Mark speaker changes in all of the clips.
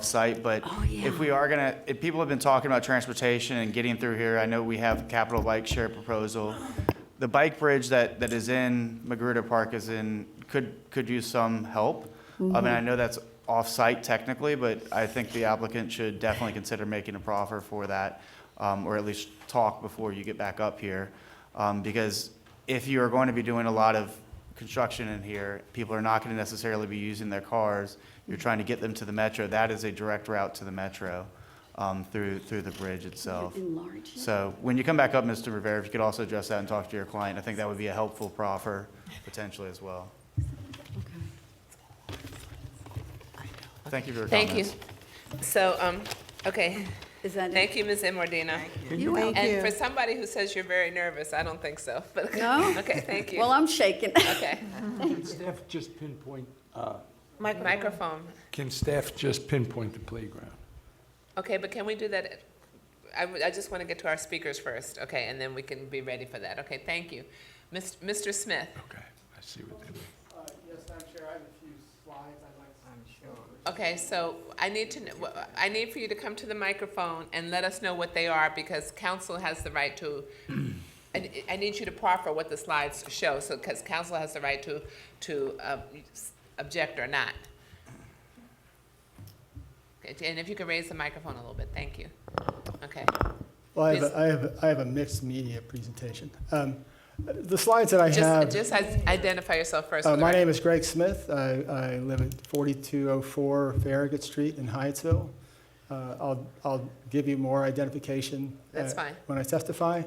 Speaker 1: off-site, but
Speaker 2: Oh, yeah.
Speaker 1: if we are gonna, if people have been talking about transportation and getting through here, I know we have capital bike share proposal.
Speaker 2: Oh.
Speaker 1: The bike bridge that, that is in Magruder Park is in, could, could use some help. I mean,
Speaker 2: Mm-hmm.
Speaker 1: I know that's off-site technically, but I think the applicant should definitely consider making a proffer for that, um, or at least talk before you get back up here. Um, because if you are going to be doing a lot of construction in here, people are not going to necessarily be using their cars. You're trying to get them to the metro. That is a direct route to the metro um, through, through the bridge itself.
Speaker 2: Enlarge.
Speaker 1: So when you come back up, Mr. Rivera, if you could also address that and talk to your client, I think that would be a helpful proffer potentially as well. Thank you for your
Speaker 3: Thank you.
Speaker 1: comments.
Speaker 3: So, um, okay,
Speaker 2: Is that?
Speaker 3: thank you, Ms. Imordino.
Speaker 2: You welcome.
Speaker 3: And for somebody who says you're very nervous, I don't think so, but.
Speaker 2: No?
Speaker 3: Okay, thank
Speaker 2: Well,
Speaker 3: you.
Speaker 2: I'm shaking.
Speaker 3: Okay.
Speaker 4: Can staff just pinpoint, uh,
Speaker 3: Microphone.
Speaker 4: can staff just pinpoint the playground?
Speaker 3: Okay, but can we do that? I, would- I just want to get to our speakers first, okay, and then we can be ready for that. Okay, thank you. Mis- Mr. Smith,
Speaker 4: Okay, I see what they mean.
Speaker 5: Uh, Yes, Madam Chair, I have a few slides I'd like to. I'm sure.
Speaker 3: okay, so I need to, kn- wh- I need for you to come to the microphone and let us know what they are because council has the right to, I, I need you to proffer what the slides show, so, because council has the right to, to uh, s- object or not. Okay, And if you could raise the microphone a little bit, thank you. Okay.
Speaker 5: Well, I have,
Speaker 3: Please.
Speaker 5: a- I have, I have a mixed media presentation. Um, The slides that I
Speaker 3: Just,
Speaker 5: have,
Speaker 3: just i- identify yourself first.
Speaker 5: uh,
Speaker 3: for the
Speaker 5: my
Speaker 3: record.
Speaker 5: name is Greg Smith. I, I live at 4204 Farragut Street in Hyattsville. Uh, I'll, I'll give you more identification.
Speaker 3: That's
Speaker 5: uh,
Speaker 3: fine.
Speaker 5: When I testify.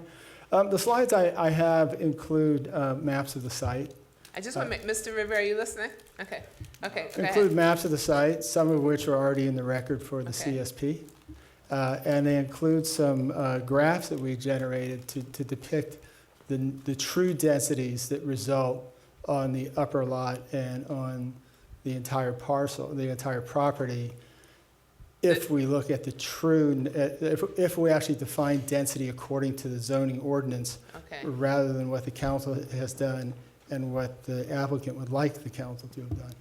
Speaker 5: Um, The slides I, I have include uh, maps of the site.
Speaker 3: I
Speaker 5: uh,
Speaker 3: just want to make, Mr. Rivera, you listening? Okay, okay, go
Speaker 5: Include
Speaker 3: ahead.
Speaker 5: maps of the site, some of which are already in the record for the
Speaker 3: Okay.
Speaker 5: CSP. Uh, And they include some uh, graphs that we generated to to depict the, the true densities that result on the upper lot and on the entire parcel, the entire property, if we look at the true, if, if we actually define density according to the zoning ordinance
Speaker 3: Okay,
Speaker 5: rather than what the council has done and what the applicant would like the council to have done.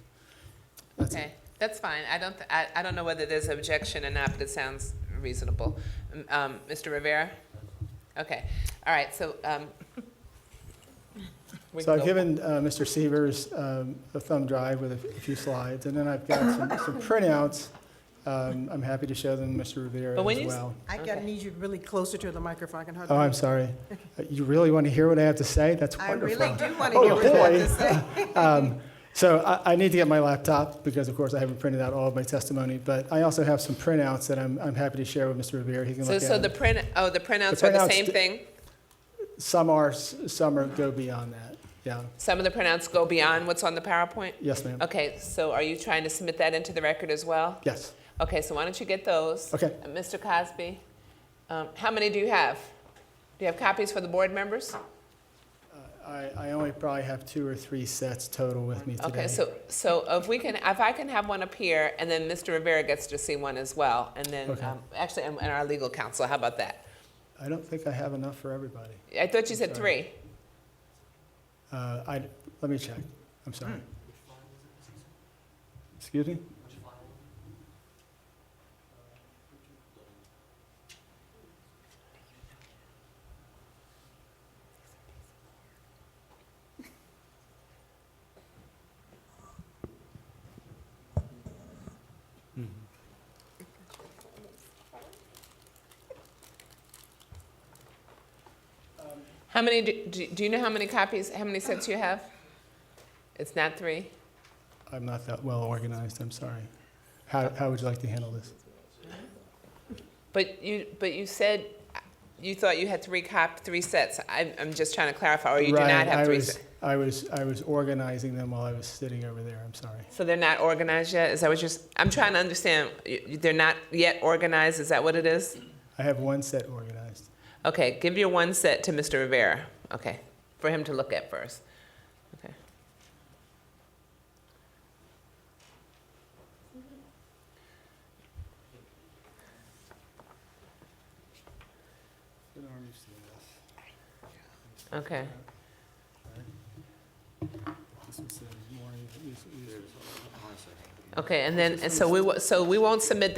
Speaker 5: That's it.
Speaker 3: okay, that's fine. I don't, th- I, I don't know whether there's objection or not, but it sounds reasonable. M- Um, Mr. Rivera? Okay, all right, so, um. we
Speaker 5: So
Speaker 3: can
Speaker 5: I've
Speaker 3: go-
Speaker 5: given uh, Mr. Severs um, a thumb drive with a few slides, and then I've got some some printouts. Um, I'm happy to show them, Mr. Rivera,
Speaker 3: But when
Speaker 5: as
Speaker 3: you s-
Speaker 5: well.
Speaker 6: I gotta need you really closer to the microphone, I can hardly.
Speaker 5: Oh, I'm sorry. Uh, You really want to hear what I have to say? That's
Speaker 6: I
Speaker 5: wonderful.
Speaker 6: really do wanna
Speaker 5: Oh,
Speaker 6: hear what you have
Speaker 5: boy.
Speaker 6: to say.
Speaker 5: Um, So I, I need to get my laptop because, of course, I haven't printed out all of my testimony, but I also have some printouts that I'm, I'm happy to share with Mr. Rivera. He can
Speaker 3: So,
Speaker 5: look
Speaker 3: so
Speaker 5: at
Speaker 3: the
Speaker 5: them.
Speaker 3: print, oh, the printouts are the
Speaker 5: printouts
Speaker 3: same
Speaker 5: d-
Speaker 3: thing?
Speaker 5: Some are, s- some are go beyond that. Yeah.
Speaker 3: Some of the printouts go beyond what's on the PowerPoint?
Speaker 5: Yes, ma'am.
Speaker 3: Okay, so are you trying to submit that into the record as well?
Speaker 5: Yes.
Speaker 3: Okay, so why don't you get those?
Speaker 5: Okay.
Speaker 3: Uh, Mr. Cosby, um, how many do you have? Do you have copies for the board members?
Speaker 5: I, Uh, I only probably have two or three sets total with me today.
Speaker 3: Okay, so, so if we can, if I can have one up here, and then Mr. Rivera gets to see one as well, and then,
Speaker 5: Okay.
Speaker 3: um, actually, and and our legal counsel, how about that?
Speaker 5: I don't think I have enough for everybody.
Speaker 3: I thought you said
Speaker 5: Sorry.
Speaker 3: three.
Speaker 5: Uh, I, let me check. I'm sorry.
Speaker 3: Hmm.
Speaker 5: Excuse me?
Speaker 3: How many, do- do do you know how many copies, how many sets you have? It's not three?
Speaker 5: I'm not that well organized. I'm sorry. How, how would you like to handle this?
Speaker 3: But you, but you said you thought you had three cop, three sets. I'm, I'm just trying to clarify, or Oh, you do not
Speaker 5: Right, I
Speaker 3: have three
Speaker 5: was-
Speaker 3: sets?
Speaker 5: I was, I was organizing them while I was sitting over there. I'm sorry.
Speaker 3: So they're not organized yet? Is that what you're, s- I'm trying to understand. You- you- They're not yet organized? Is that what it is?
Speaker 5: I have one set organized.
Speaker 3: Okay, give your one set to Mr. Rivera. Okay, for him to look at first. Okay. Okay. Okay, and then, and so we, wo- so we won't submit